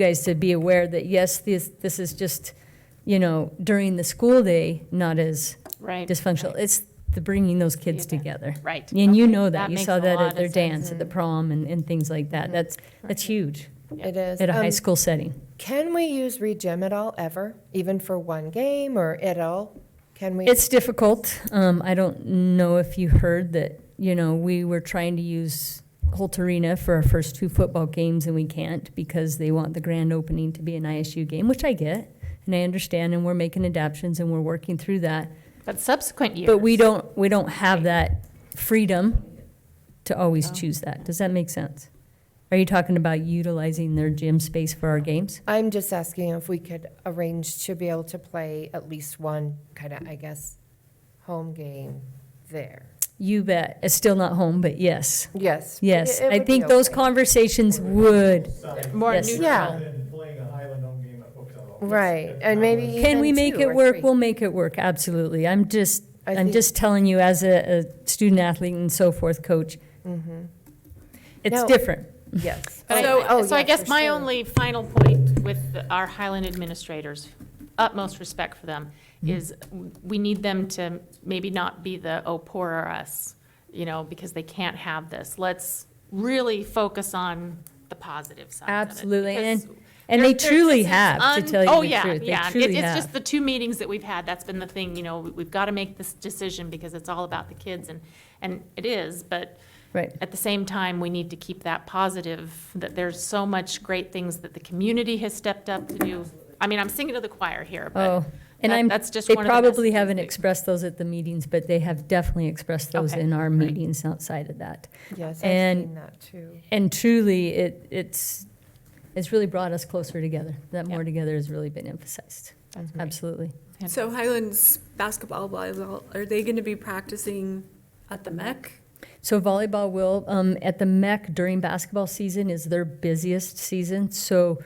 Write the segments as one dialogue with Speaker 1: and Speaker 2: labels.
Speaker 1: guys to be aware that, yes, this, this is just, you know, during the school day, not as
Speaker 2: Right.
Speaker 1: dysfunctional. It's the bringing those kids
Speaker 2: Together.
Speaker 1: together.
Speaker 2: Right.
Speaker 1: And you
Speaker 2: Okay.
Speaker 1: know that.
Speaker 2: That
Speaker 1: You
Speaker 2: makes
Speaker 1: saw
Speaker 2: a
Speaker 1: that
Speaker 2: lot
Speaker 1: at
Speaker 2: of
Speaker 1: their
Speaker 2: sense. Mm-hmm.
Speaker 1: dance, at the prom and, and things like that. That's, that's huge
Speaker 3: It is.
Speaker 1: at a high
Speaker 3: Um,
Speaker 1: school setting.
Speaker 3: Can we use regym at all, ever, even for one game or at all? Can we?
Speaker 1: It's difficult. Um, I don't know if you heard that, you know, we were trying to use Holt Arena for our first two football games and we can't because they want the grand opening to be an ISU game, which I get and I understand and we're making adaptions and we're working through that.
Speaker 2: But subsequent years.
Speaker 1: But we don't, we don't have that freedom to
Speaker 3: Oh.
Speaker 1: always choose that. Does that make sense? Are you talking about utilizing their gym space for our games?
Speaker 3: I'm just asking if we could arrange to be able to play at least one kind of, I guess, home game there.
Speaker 1: You bet. It's still not home, but yes.
Speaker 3: Yes.
Speaker 1: Yes,
Speaker 3: it- it
Speaker 1: I
Speaker 3: would
Speaker 1: think
Speaker 3: be
Speaker 1: those
Speaker 3: okay.
Speaker 1: conversations would.
Speaker 2: More
Speaker 1: Yes.
Speaker 2: neutral.
Speaker 3: Yeah.
Speaker 4: Than playing a Highland home game at Pocatello.
Speaker 3: Right, and maybe
Speaker 1: Can we
Speaker 3: even
Speaker 1: make
Speaker 3: two
Speaker 1: it
Speaker 3: or
Speaker 1: work?
Speaker 3: three.
Speaker 1: We'll make it work, absolutely. I'm just,
Speaker 3: I
Speaker 1: I'm
Speaker 3: think-
Speaker 1: just telling you as a, a student athlete and so forth, coach.
Speaker 3: Mm-hmm.
Speaker 1: It's
Speaker 3: No.
Speaker 1: different.
Speaker 3: Yes.
Speaker 2: But I-
Speaker 3: Oh, oh,
Speaker 2: So I
Speaker 3: yeah,
Speaker 2: guess
Speaker 3: for
Speaker 2: my
Speaker 3: sure.
Speaker 2: only final point with the- our Highland administrators, utmost respect for them,
Speaker 1: Mm-hmm.
Speaker 2: is w- we need them to maybe not be the, oh, poor are us, you know, because they can't have this. Let's really focus on the positive side of it.
Speaker 1: Absolutely, and-
Speaker 2: because
Speaker 1: And they
Speaker 2: there- there
Speaker 1: truly
Speaker 2: just is
Speaker 1: have, to
Speaker 2: un-
Speaker 1: tell
Speaker 2: oh,
Speaker 1: you the
Speaker 2: yeah,
Speaker 1: truth. They
Speaker 2: yeah. It-
Speaker 1: truly
Speaker 2: It's just
Speaker 1: have.
Speaker 2: the two meetings that we've had, that's been the thing, you know, we- we've got to make this decision because it's all about the kids and, and it is, but
Speaker 1: Right.
Speaker 2: at the same time, we need to keep that positive, that there's so much great things that the community has stepped up to do. I mean, I'm singing to the choir here, but
Speaker 1: Oh, and
Speaker 2: that-
Speaker 1: I'm,
Speaker 2: that's just
Speaker 1: they
Speaker 2: one of the
Speaker 1: probably
Speaker 2: messages
Speaker 1: haven't
Speaker 2: we-
Speaker 1: expressed those at the meetings, but they have definitely expressed those
Speaker 2: Okay,
Speaker 1: in our
Speaker 2: great.
Speaker 1: meetings outside of that.
Speaker 3: Yes, I've
Speaker 1: and-
Speaker 3: seen that too.
Speaker 1: And truly, it, it's, it's really brought us closer together. That
Speaker 2: Yeah.
Speaker 1: more together has really been emphasized.
Speaker 2: That's great.
Speaker 1: Absolutely.
Speaker 5: So Highlands basketball, volleyball, are they going to be practicing at the MEC?
Speaker 1: So volleyball will, um, at the MEC during basketball season is their busiest season, so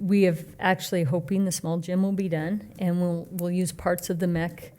Speaker 1: we have actually hoping the small gym will be done, and we'll, we'll use parts of the MEC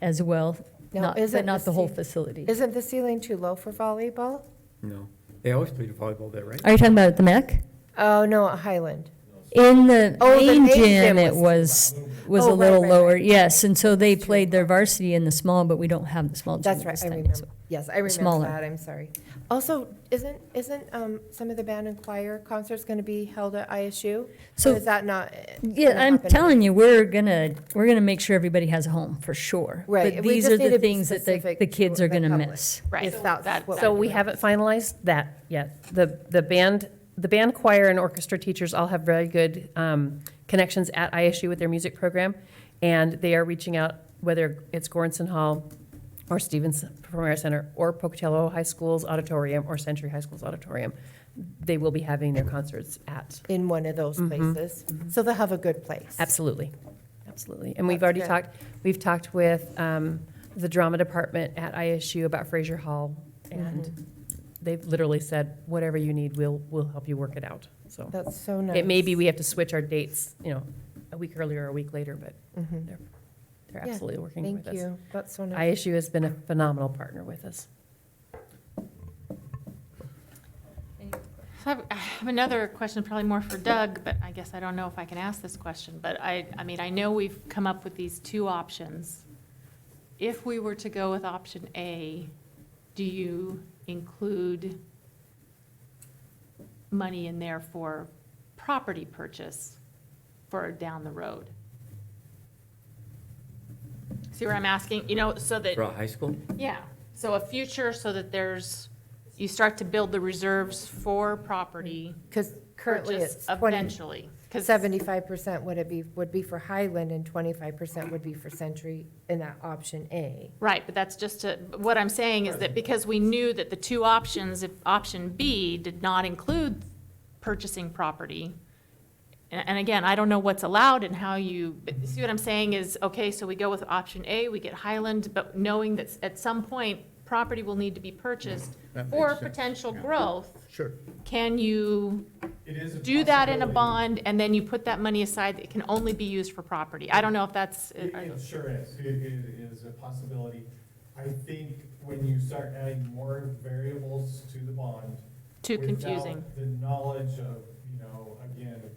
Speaker 1: as well,
Speaker 3: Now,
Speaker 1: not,
Speaker 3: is
Speaker 1: but
Speaker 3: it
Speaker 1: not
Speaker 3: the
Speaker 1: the whole
Speaker 3: same-
Speaker 1: facility.
Speaker 3: Isn't the ceiling too low for volleyball?
Speaker 6: No. They always played volleyball there, right?
Speaker 1: Are you talking about at the MEC?
Speaker 3: Oh, no, at Highland.
Speaker 1: In the
Speaker 3: Oh, the
Speaker 1: main
Speaker 3: main
Speaker 1: gym,
Speaker 3: gym
Speaker 1: it was, was
Speaker 3: Oh,
Speaker 1: a
Speaker 3: right,
Speaker 1: little
Speaker 3: right,
Speaker 1: lower,
Speaker 3: right.
Speaker 1: yes, and so they played their varsity in the small, but we don't have the small gym.
Speaker 3: That's
Speaker 1: at
Speaker 3: right,
Speaker 1: this
Speaker 3: I
Speaker 1: time,
Speaker 3: remember.
Speaker 1: so-
Speaker 3: Yes, I remember
Speaker 1: smaller.
Speaker 3: that, I'm sorry. Also, isn't, isn't um, some of the band and choir concerts going to be held at ISU?
Speaker 1: So-
Speaker 3: So is that not? uh, gonna
Speaker 1: Yeah, I'm
Speaker 3: happen?
Speaker 1: telling you, we're gonna, we're gonna make sure everybody has a home, for sure.
Speaker 3: Right,
Speaker 1: But
Speaker 3: we
Speaker 1: these
Speaker 3: just
Speaker 1: are
Speaker 3: need
Speaker 1: the
Speaker 3: to be
Speaker 1: things that the,
Speaker 3: specific
Speaker 1: the kids
Speaker 3: to
Speaker 1: are
Speaker 3: the
Speaker 1: gonna
Speaker 3: public.
Speaker 1: miss.
Speaker 2: Right.
Speaker 3: If that's what
Speaker 7: So
Speaker 3: we're
Speaker 7: we
Speaker 3: doing.
Speaker 7: haven't finalized that yet. The, the band, the band choir and orchestra teachers all have very good um, connections at ISU with their music program, and they are reaching out, whether it's Goranson Hall or Stevens Performing Arts Center or Pocatello High School's auditorium or Century High School's auditorium. They will be having their concerts at,
Speaker 3: In one of those
Speaker 1: Mm-hmm.
Speaker 3: places. So they'll have a good place.
Speaker 7: absolutely, absolutely. And we've
Speaker 3: That's
Speaker 7: already
Speaker 3: good.
Speaker 7: talked, we've talked with um, the drama department at ISU about Fraser Hall,
Speaker 3: Mm-hmm.
Speaker 7: and they've literally said, whatever you need, we'll, we'll help you work it out, so.
Speaker 3: That's so nice.
Speaker 7: It may be we have to switch our dates, you know, a week earlier, or a week later, but
Speaker 3: Mhm.
Speaker 7: they're, they're
Speaker 3: Yeah,
Speaker 7: absolutely working with
Speaker 3: Thank
Speaker 7: us.
Speaker 3: you. That's so nice.
Speaker 7: ISU has been a phenomenal partner with us.
Speaker 2: So I have- I have another question, probably more for Doug, but I guess I don't know if I can ask this question. But I, I mean, I know we've come up with these two options. If we were to go with option A, do you include money in there for property purchase for down the road? See where I'm asking, you know, so that.
Speaker 6: For a high school?
Speaker 2: Yeah, so a future so that there's, you start to build the reserves for property
Speaker 3: Because currently
Speaker 2: purchase
Speaker 3: it's 20,
Speaker 2: eventually. 'Cause-
Speaker 3: 75% would it be, would be for Highland and 25% would be for Century in that option A.
Speaker 2: Right, but that's just a, but what I'm saying is that because we knew that the two options, if option B did not include purchasing property, and, and again, I don't know what's allowed and how you, but you see what I'm saying is, okay, so we go with option A, we get Highland, but knowing that at some point, property will need to be purchased
Speaker 8: That makes
Speaker 2: for
Speaker 8: sense,
Speaker 2: potential
Speaker 8: yeah.
Speaker 2: growth,
Speaker 8: Sure.
Speaker 2: can you
Speaker 4: It is a
Speaker 2: do that in a
Speaker 4: possibility.
Speaker 2: bond, and then you put that money aside, it can only be used for property. I don't know if that's, uh,
Speaker 4: It it sure is, it, it is a possibility. I think when you start adding more variables to the bond.
Speaker 2: too
Speaker 4: without
Speaker 2: confusing.
Speaker 4: The knowledge of, you know, again,